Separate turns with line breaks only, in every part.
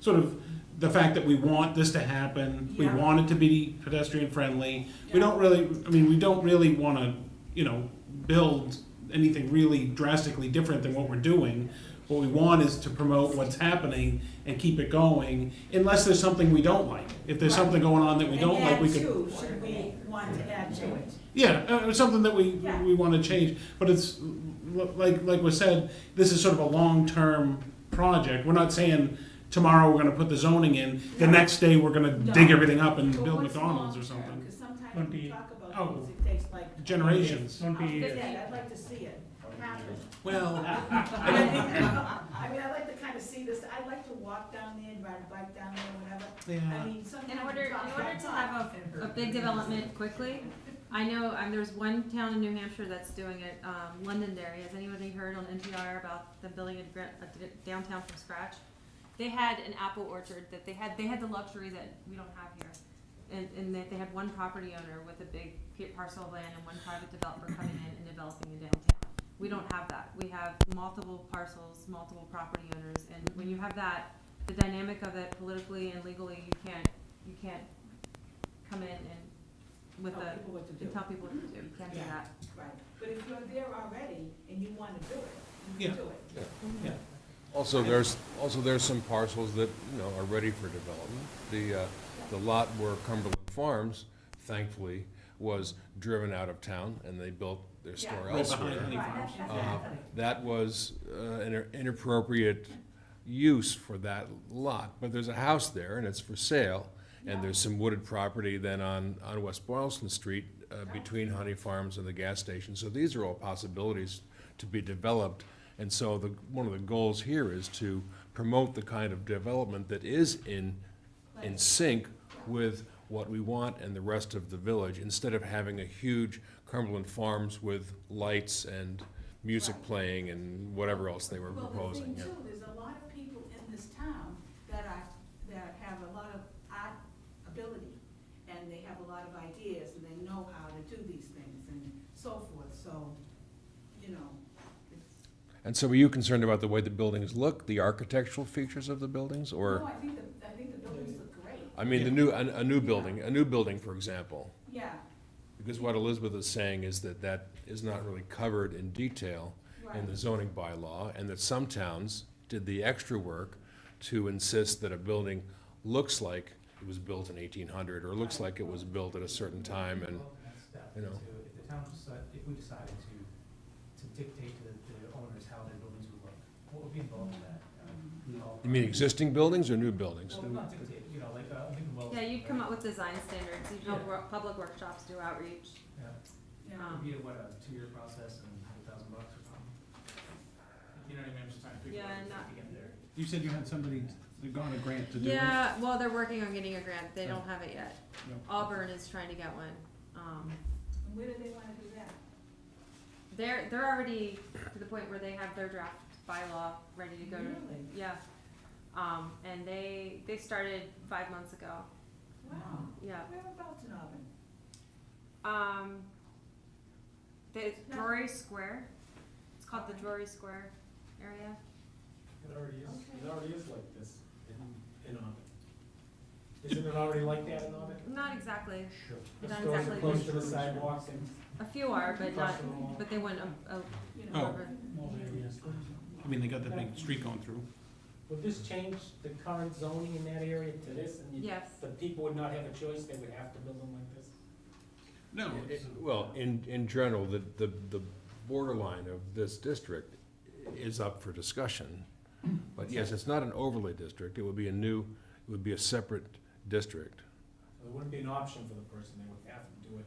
sort of the fact that we want this to happen, we
Yeah.
want it to be pedestrian friendly. We
Yeah.
don't really, I mean, we don't really want to, you know, build anything really drastically different than what we're doing. What we want is to promote what's happening and keep it going, unless there's something we don't like. If there's
Right.
something going on that we don't like, we could.
And add to, should we want to add to it?
Yeah, uh, it's something that we
Yeah.
we want to change, but it's l- like like was said, this is sort of a long term project. We're not saying tomorrow we're going to put the zoning in, the
No.
next day we're going to
No.
dig everything up and
But
build
what's
McDonald's or
long-term?
something.
Cause
Won't
sometimes
be-
we talk
oh.
about things, it takes like.
Generations.
Won't
I'll
be
fit
years.
that, I'd like to see it happen.
Well,
I mean, I'd like to kind of see this, I'd like to walk down there, ride a bike down there, whatever. I
yeah,
mean, sometimes.
In
we
order,
talk
in order
about
to
time.
have a, a big development quickly, I know, um, there's one town in New Hampshire that's doing it, um, Londonderry, has anybody heard on NPR about them building a gra- a d- downtown from scratch? They had an apple orchard that they had, they had the luxury that we don't have here. And, and that they had one property owner with a big pa- parcel of land and one private developer coming in and developing a downtown. We don't have that, we have multiple parcels, multiple property owners, and when you have that, the dynamic of it politically and legally, you can't, you can't come in and with
Tell
a,
people what to do.
and tell people what to do, you can't do
Yeah.
that.
Right, but if you're there already and you wanna do it,
Yeah.
you can do it.
Also, there's, also there's some parcels that, you know, are ready for development. The, uh, the lot where Cumberland Farms, thankfully, was driven out of town and they built their store
Yeah.
right behind
elsewhere.
Honey
Right,
Farms.
that's-
Uh,
that's happening.
That was uh, an inappropriate use for that lot, but there's a house there and it's for sale. And there's some wooded property then on, on West Boylston Street uh, between Honey Farms and the gas station. So these are all possibilities to be developed. And so the, one of the goals here is to promote the kind of development that is in, in sync with what we want and the rest of the village, instead of having a huge Cumberland Farms with lights and music playing and whatever else they were
Well, the thing
proposing, yeah.
too, there's a lot of people in this town that are, that have a lot of art ability, and they have a lot of ideas, and they know how to do these things and so forth, so, you know, it's.
And so were you concerned about the way the buildings look, the architectural features of the buildings,
No,
or,
I think the, I think the buildings look great,
I mean, the
Yeah.
new, a, a new building, a new building, for example?
yeah,
Because what Elizabeth is saying is that that is not really covered in detail
right,
in the zoning bylaw, and that some towns did the extra work to insist that a building looks like it was built in eighteen hundred, or looks like it was built at a certain time, and,
That's step
you know.
to- If the town decide, if we decided to, to dictate to the, the owners how their buildings would look, what would be involved in that? Um, we all-
you mean existing buildings or new buildings?
Well, not dictate, you know, like, uh, I think Wells.
Yeah, you'd come up with design standards, you'd
Yeah.
have wor- public workshops, do outreach.
Yeah,
yeah.
Um,
it would be a, what, a two-year process and a hundred thousand bucks or something? You know what I mean, I'm just trying to figure out
Yeah,
what
not-
to get there.
You said you had somebody that got a grant to do it.
Yeah, well, they're working on getting a grant, they don't have it yet.
No.
Auburn is trying to get one, um,
And where do they wanna do that?
they're, they're already to the point where they have their draft bylaw ready to go to
Really?
Yeah, um, and they, they started five months ago,
Wow,
yeah.
whereabouts in Auburn?
Um, the Drury Square, it's called the Drury Square area.
It already is,
Okay.
it already is like this in, in Auburn. Isn't it already like that in Auburn?
Not exactly,
Sure. The
Not
stores are
exactly.
close to the sidewalks and
a few are, but not,
across the mall.
but they went a, a
You
Oh.
know,
over.
I mean, they got that big street going through.
Would this change the current zoning in that area to this? and you-
Yes,
The people would not have a choice, they would have to build them like this?
No,
It- Well, in, in general, the, the, the borderline of this district is up for discussion. But yes, it's not an overlay district, it would be a new, it would be a separate district.
So There wouldn't be an option for the person, they would have to do it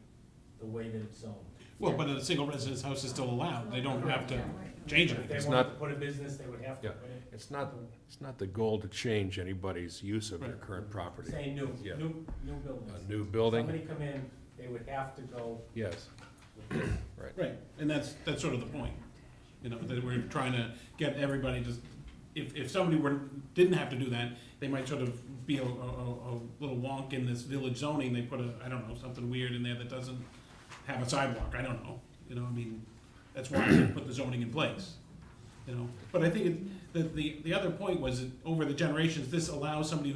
the way that it's zoned.
well, but a single residence house is still allowed. uh, They don't have to change
If
it.
they
It's
wanted to
not-
put a business, they would have to
Yeah.
put it,
It's not, it's not the goal to change anybody's use of their
Right.
current property.
say new,
Yeah.
new, new buildings.
A new building,
Somebody come in, they would have to go
yes.
with this.
Right, and that's, that's sort of the point, you know, that we're trying to get everybody to, if, if somebody were, didn't have to do that, they might sort of be a, a, a a little wonk in this village zoning, they put a, I don't know, something weird in there that doesn't have a sidewalk, I don't know, you know, I mean, that's why they put the zoning in place, you know, but I think it, the, the, the other point was that over the generations, this allows somebody